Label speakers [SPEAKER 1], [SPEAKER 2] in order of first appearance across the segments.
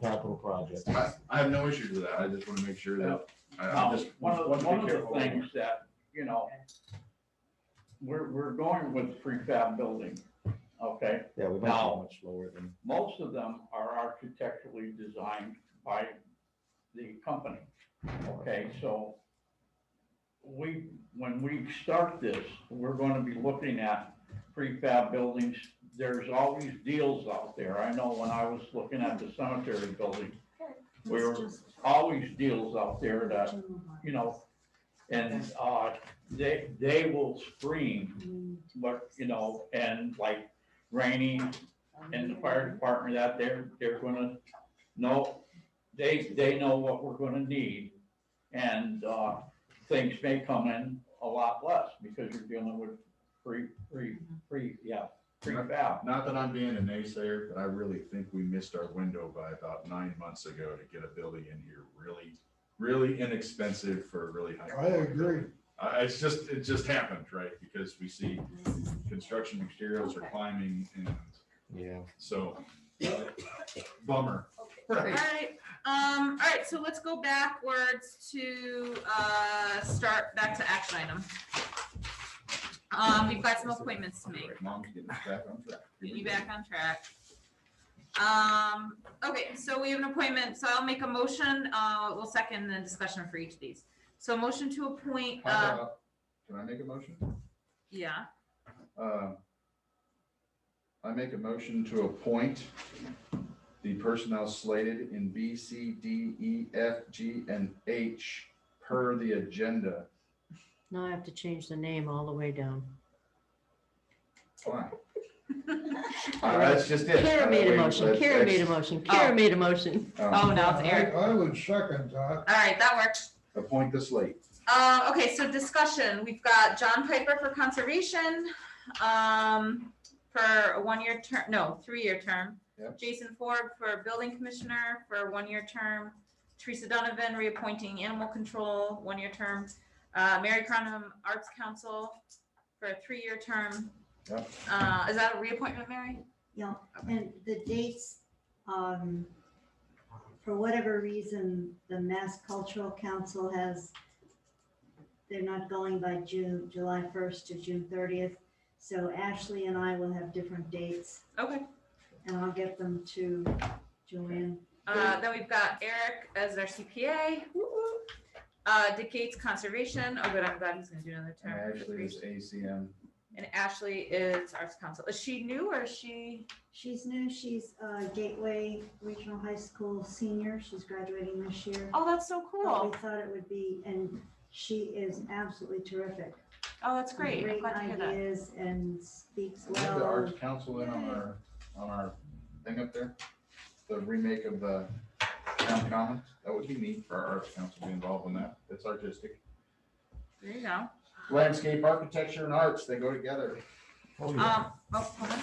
[SPEAKER 1] capital project.
[SPEAKER 2] I, I have no issues with that. I just want to make sure that, I,
[SPEAKER 3] Now,
[SPEAKER 2] I'm just.
[SPEAKER 3] Oh, one of,
[SPEAKER 2] want to be
[SPEAKER 3] one of the
[SPEAKER 2] careful.
[SPEAKER 3] things that, you know, we're, we're going with prefab building, okay?
[SPEAKER 1] Yeah, we might
[SPEAKER 3] Now-
[SPEAKER 1] be much lower than,
[SPEAKER 3] Most of them are architecturally designed by the company, okay, so we, when we start this, we're gonna be looking at prefab buildings. There's always deals out there. I know when I was looking at the cemetery building, Where-
[SPEAKER 4] It's just
[SPEAKER 3] always deals out there that
[SPEAKER 4] too much.
[SPEAKER 3] you know, and, uh, they, they will scream,
[SPEAKER 4] Mm,
[SPEAKER 3] but, you know, and like Rainey and the fire department out there, they're gonna know, they, they know what we're gonna need. And, uh, things may come in a lot less because you're dealing with pre, pre, pre, yeah, prefab.
[SPEAKER 2] Not that I'm being a naysayer, but I really think we missed our window by about nine months ago to get a building in here really, really inexpensive for a really high.
[SPEAKER 5] I agree.
[SPEAKER 2] I, it's just, it just happened, right? Because we see
[SPEAKER 4] this is-
[SPEAKER 2] construction materials are climbing and
[SPEAKER 1] yeah.
[SPEAKER 2] so uh, bummer.
[SPEAKER 6] All
[SPEAKER 2] Right.
[SPEAKER 6] right, um, all right, so let's go backwards to, uh, start back to action item. Um, we've got some appointments to make,
[SPEAKER 2] Mom's getting us back on track. Here
[SPEAKER 6] get
[SPEAKER 2] we
[SPEAKER 6] you
[SPEAKER 2] go.
[SPEAKER 6] back on track. Um, okay, so we have an appointment, so I'll make a motion, uh, we'll second the discussion for each of these. So motion to appoint,
[SPEAKER 2] How
[SPEAKER 6] uh,
[SPEAKER 2] about- Can I make a motion?
[SPEAKER 6] yeah,
[SPEAKER 2] Uh, I make a motion to appoint the personnel slated in B, C, D, E, F, G, and H per the agenda.
[SPEAKER 4] Now I have to change the name all the way down.
[SPEAKER 2] Fine. Uh, That's just it.
[SPEAKER 4] Kara made a
[SPEAKER 2] Uh,
[SPEAKER 4] motion,
[SPEAKER 2] wait,
[SPEAKER 4] Kara
[SPEAKER 2] that's-
[SPEAKER 4] made a motion, Kara
[SPEAKER 6] Oh.
[SPEAKER 4] made a motion.
[SPEAKER 2] uh,
[SPEAKER 6] oh, no, it's Eric,
[SPEAKER 5] I I would second that.
[SPEAKER 6] all right, that works.
[SPEAKER 2] Appoint the slate.
[SPEAKER 6] Uh, okay, so discussion, we've got John Piper for conservation, um, for a one-year term, no, three-year term.
[SPEAKER 2] Yep.
[SPEAKER 6] Jason Ford for building commissioner for a one-year term. Teresa Donovan reappointing animal control, one-year term. Uh, Mary Cronum Arts Council for a three-year term.
[SPEAKER 2] Yep.
[SPEAKER 6] Uh, is that a reappointment, Mary?
[SPEAKER 7] Yeah, and the dates, um, for whatever reason, the Mass Cultural Council has, they're not going by June, July first to June thirtieth. So Ashley and I will have different dates
[SPEAKER 6] Okay,
[SPEAKER 7] and I'll get them to Joanne.
[SPEAKER 6] uh, then we've got Eric as our CPA. Woo-hoo. Uh, Dick Gates Conservation, oh, good, I'm glad he's gonna do another
[SPEAKER 4] Oh,
[SPEAKER 2] And
[SPEAKER 6] term.
[SPEAKER 2] Actually, it's ACM.
[SPEAKER 6] And Ashley is arts council. Is she new or is she?
[SPEAKER 7] She's new, she's uh, Gateway Regional High School senior, she's graduating this year.
[SPEAKER 6] Oh, that's so
[SPEAKER 7] But
[SPEAKER 6] cool.
[SPEAKER 7] We thought it would be, and she is absolutely terrific.
[SPEAKER 6] Oh, that's great. I'm
[SPEAKER 7] Great
[SPEAKER 6] glad to hear that.
[SPEAKER 7] ideas and speaks
[SPEAKER 2] We have the
[SPEAKER 7] well.
[SPEAKER 2] arts council in on our, on our thing up there, the remake of the town commons. That would be neat for our arts council to be involved in that. It's artistic.
[SPEAKER 6] There you go.
[SPEAKER 2] Landscape, architecture, and arts, they go together.
[SPEAKER 1] Oh, yeah.
[SPEAKER 6] Um, oh, hold on.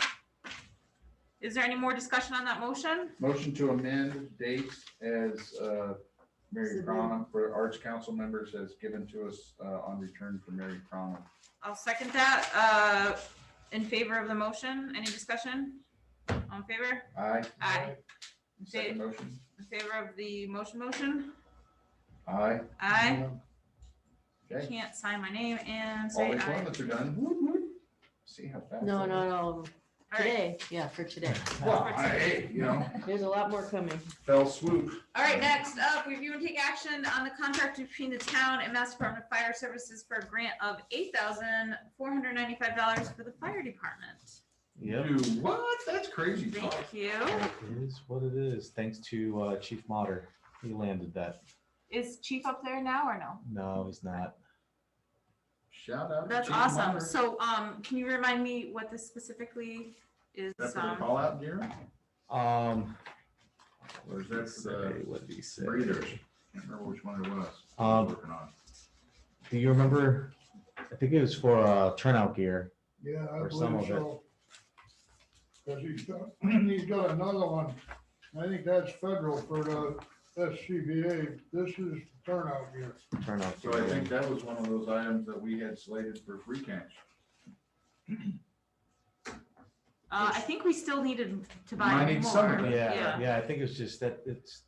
[SPEAKER 6] Is there any more discussion on that motion?
[SPEAKER 2] Motion to amend dates as uh, Mary Cronum for Arts Council members as given to us uh, on return for Mary Cronum.
[SPEAKER 6] I'll second that. Uh, in favor of the motion, any discussion? All in favor?
[SPEAKER 2] Aye.
[SPEAKER 6] Aye. In fa-
[SPEAKER 2] Second motion.
[SPEAKER 6] In favor of the motion, motion?
[SPEAKER 2] Aye.
[SPEAKER 6] Aye.
[SPEAKER 2] Okay.
[SPEAKER 6] Can't sign my name and
[SPEAKER 2] All
[SPEAKER 6] say
[SPEAKER 2] the
[SPEAKER 6] aye.
[SPEAKER 2] appointments are done. Woot, woot. See how fast.
[SPEAKER 4] No,
[SPEAKER 2] that
[SPEAKER 4] no,
[SPEAKER 2] is.
[SPEAKER 4] no,
[SPEAKER 6] All right.
[SPEAKER 4] today, yeah, for today.
[SPEAKER 2] Well, I- hey, you know,
[SPEAKER 4] There's a lot more coming.
[SPEAKER 2] fell swoop.
[SPEAKER 6] All right, next up, review and take action on the contract between the town and Mass Department of Fire Services for a grant of eight thousand four hundred ninety-five dollars for the fire department.
[SPEAKER 1] Yep,
[SPEAKER 2] Dude, what? That's crazy
[SPEAKER 6] Thank
[SPEAKER 2] talk.
[SPEAKER 6] you.
[SPEAKER 1] it is what it is, thanks to uh, Chief Motter, he landed that.
[SPEAKER 6] Is Chief up there now or no?
[SPEAKER 1] No, he's not.
[SPEAKER 2] Shout out. to
[SPEAKER 6] That's
[SPEAKER 2] Chief
[SPEAKER 6] awesome.
[SPEAKER 2] Meyer.
[SPEAKER 6] So, um, can you remind me what this specifically is?
[SPEAKER 2] Is that for the
[SPEAKER 6] um,
[SPEAKER 2] call out gear?
[SPEAKER 1] Um.
[SPEAKER 2] Or is that uh,
[SPEAKER 1] Say, what did he say?
[SPEAKER 2] breeders? Can't remember which one it was.
[SPEAKER 1] Um,
[SPEAKER 2] Working on.
[SPEAKER 1] Do you remember? I think it was for uh, turnout gear.
[SPEAKER 5] Yeah, I
[SPEAKER 1] Or some
[SPEAKER 5] believe
[SPEAKER 1] of it.
[SPEAKER 5] so. Because he's got, he's got another one. I think that's federal for the SCBA. This is turnout gear.
[SPEAKER 1] Turnout.
[SPEAKER 2] So I
[SPEAKER 1] gear.
[SPEAKER 2] think that was one of those items that we had slated for free cash.
[SPEAKER 8] Uh, I think we still needed to buy more.
[SPEAKER 6] Might need some of it.
[SPEAKER 1] Yeah, yeah, I think it's just that it's,